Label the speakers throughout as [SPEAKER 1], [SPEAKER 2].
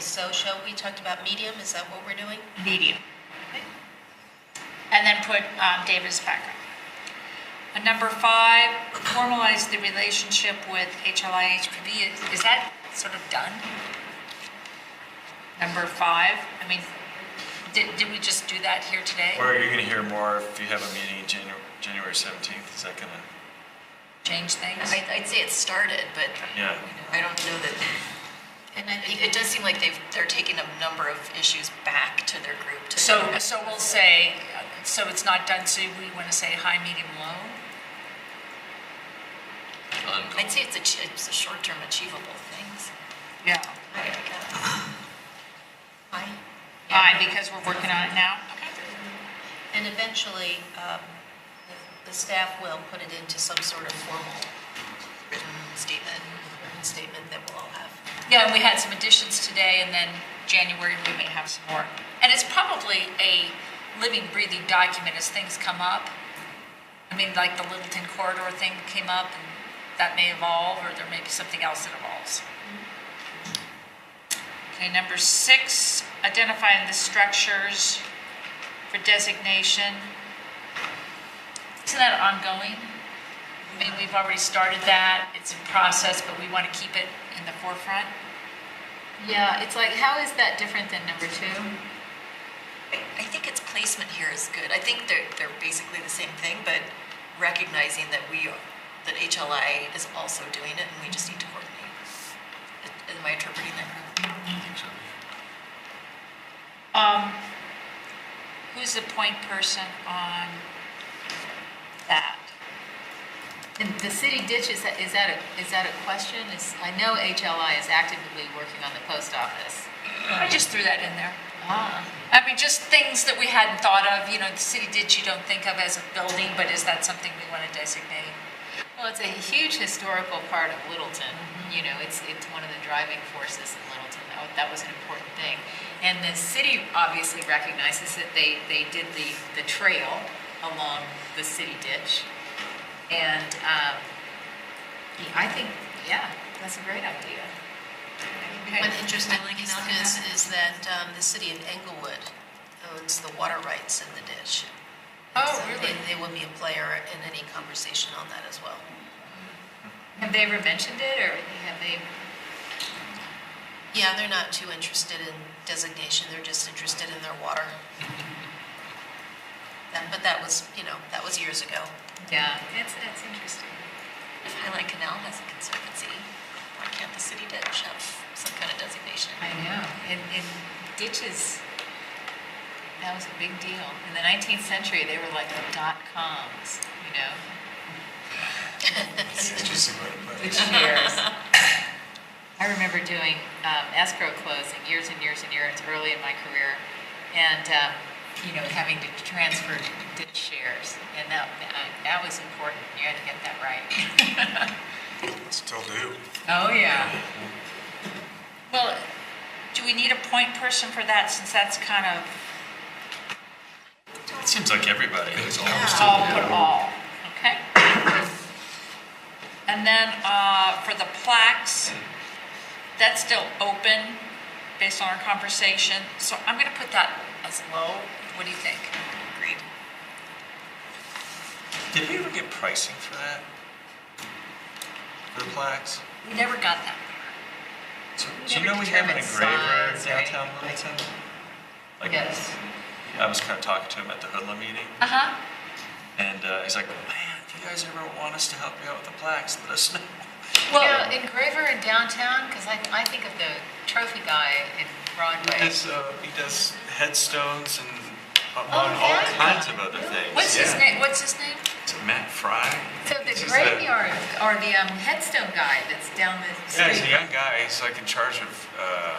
[SPEAKER 1] So shall, we talked about medium, is that what we're doing?
[SPEAKER 2] medium. And then put um, Davis Packer. And number five, formalize the relationship with HLI HPV. Is- Is that sort of done? Number five, I mean, did, did we just do that here today?
[SPEAKER 3] Or you're going to hear more if you have a meeting in January, January 17th, is that going to,
[SPEAKER 2] Change things?
[SPEAKER 4] I- I'd say it started, but
[SPEAKER 3] yeah.
[SPEAKER 4] I don't know that,
[SPEAKER 1] And I
[SPEAKER 4] it
[SPEAKER 1] think,
[SPEAKER 4] it does seem like they've, they're taking a number of issues back to their group to.
[SPEAKER 2] So, so we'll say, uh, so it's not done, so we want to say high, medium, low?
[SPEAKER 4] I'd say it's a, ch- it's a short-term achievable things.
[SPEAKER 2] Yeah.
[SPEAKER 4] Why?
[SPEAKER 2] Aye, because we're working on it now?
[SPEAKER 1] and eventually, um, the- the staff will put it into some sort of formal
[SPEAKER 4] Written statement.
[SPEAKER 1] written statement that we'll all have.
[SPEAKER 2] Yeah, and we had some additions today, and then January, we may have some more. And it's probably a living, breathing document as things come up. I mean, like the Littleton corridor thing came up, and that may evolve, or there may be something else that evolves. Okay, number six, identifying the structures for designation. Isn't that ongoing? I mean, we've already started that, it's in process, but we want to keep it in the forefront.
[SPEAKER 5] Yeah, it's like, how is that different than number two?
[SPEAKER 4] I I think its placement here is good. I think they're, they're basically the same thing, but recognizing that we, are- that HLI is also doing it and we just need to coordinate. Am I interpreting that correctly?
[SPEAKER 2] Um, who's the point person on that?
[SPEAKER 5] And the city ditch, is that, is that a, is that a question? Is, I know HLI is actively working on the post office.
[SPEAKER 2] I just threw that in there.
[SPEAKER 5] Ah.
[SPEAKER 2] I mean, just things that we hadn't thought of, you know, the city ditch you don't think of as a building, but is that something we want to designate?
[SPEAKER 5] Well, it's a huge historical part of Littleton,
[SPEAKER 4] Mm-hmm.
[SPEAKER 5] you know, it's, it's one of the driving forces in Littleton, that, wa- that was an important thing. And the city obviously recognizes that they, they did the, the trail along the city ditch. And, um, I think, yeah, that's a great idea.
[SPEAKER 1] One interesting thing is, is that um, the city of Englewood owns the water rights in the ditch.
[SPEAKER 2] Oh,
[SPEAKER 1] So they-
[SPEAKER 2] really?
[SPEAKER 1] They will be a player in any conversation on that as well.
[SPEAKER 5] Have they ever mentioned it, or have they?
[SPEAKER 1] Yeah, they're not too interested in designation, they're just interested in their water. That- But that was, you know, that was years ago.
[SPEAKER 5] Yeah, that's, that's interesting.
[SPEAKER 4] If Highline Canal has a conservancy, why can't the city ditch have some kind of designation?
[SPEAKER 5] I know, and, and ditches, that was a big deal. In the nineteenth century, they were like the dot coms, you know,
[SPEAKER 3] It's just a way to put
[SPEAKER 5] the
[SPEAKER 3] it.
[SPEAKER 5] shares. I remember doing um, escrow closing years and years and years early in my career, and, um, you know, having to transfer ditch shares, and that, that was important, you had to get that right.
[SPEAKER 6] Still do.
[SPEAKER 5] Oh, yeah.
[SPEAKER 2] Well, do we need a point person for that, since that's kind of
[SPEAKER 3] It seems like everybody.
[SPEAKER 2] all put all, okay? And then uh, for the plaques, that's still open based on our conversation, so I'm going to put that as low. What do you think?
[SPEAKER 4] Agreed.
[SPEAKER 3] Did we ever get pricing for that? For the plaques?
[SPEAKER 2] We never got that.
[SPEAKER 3] So-
[SPEAKER 5] We
[SPEAKER 3] Do you
[SPEAKER 5] never
[SPEAKER 3] know we have an
[SPEAKER 5] determined
[SPEAKER 3] engraver
[SPEAKER 5] size, right?
[SPEAKER 3] downtown Littleton? Like,
[SPEAKER 5] Yes.
[SPEAKER 3] I was kind of talking to him at the Hoodlum meeting,
[SPEAKER 2] Uh-huh.
[SPEAKER 3] and uh, he's like, man, if you guys ever want us to help you out with the plaques, let us know.
[SPEAKER 5] Well, engraver in downtown, because I, I think of the trophy guy in Broadway.
[SPEAKER 6] Does, uh, he does headstones and among
[SPEAKER 5] Oh,
[SPEAKER 6] all
[SPEAKER 5] yeah.
[SPEAKER 6] kinds of other things.
[SPEAKER 2] What's his
[SPEAKER 6] Yeah.
[SPEAKER 2] name, what's his name?
[SPEAKER 3] Is it Matt Fry?
[SPEAKER 5] So the
[SPEAKER 6] This is the-
[SPEAKER 5] graveyard, or the um, headstone guy that's down the
[SPEAKER 6] Yeah, he's a
[SPEAKER 5] street.
[SPEAKER 6] young guy. He's like in charge of uh,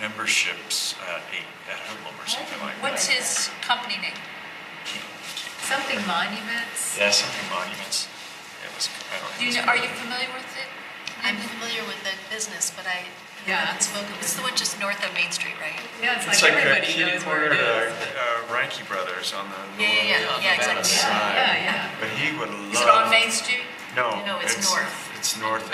[SPEAKER 6] memberships at eight at Hoodlum or something like that.
[SPEAKER 2] What's his company name?
[SPEAKER 5] Something monuments.
[SPEAKER 3] Yeah, something monuments. It was, I don't
[SPEAKER 2] Do you know, are you familiar with it?
[SPEAKER 1] I'm familiar with that business, but I
[SPEAKER 5] Yeah.
[SPEAKER 1] haven't spoken with
[SPEAKER 4] It's the one just north of Main Street, right?
[SPEAKER 5] Yeah,
[SPEAKER 6] It's like uh, Keenan Ward, uh, uh, Ranky Brothers on the
[SPEAKER 4] Yeah,
[SPEAKER 6] north
[SPEAKER 4] yeah, yeah, yeah,
[SPEAKER 6] Nevada
[SPEAKER 4] exactly.
[SPEAKER 6] side.
[SPEAKER 5] Yeah, yeah.
[SPEAKER 6] But he would love.
[SPEAKER 2] Is it on Main Street?
[SPEAKER 6] No,
[SPEAKER 4] No, it's north.
[SPEAKER 6] It's north.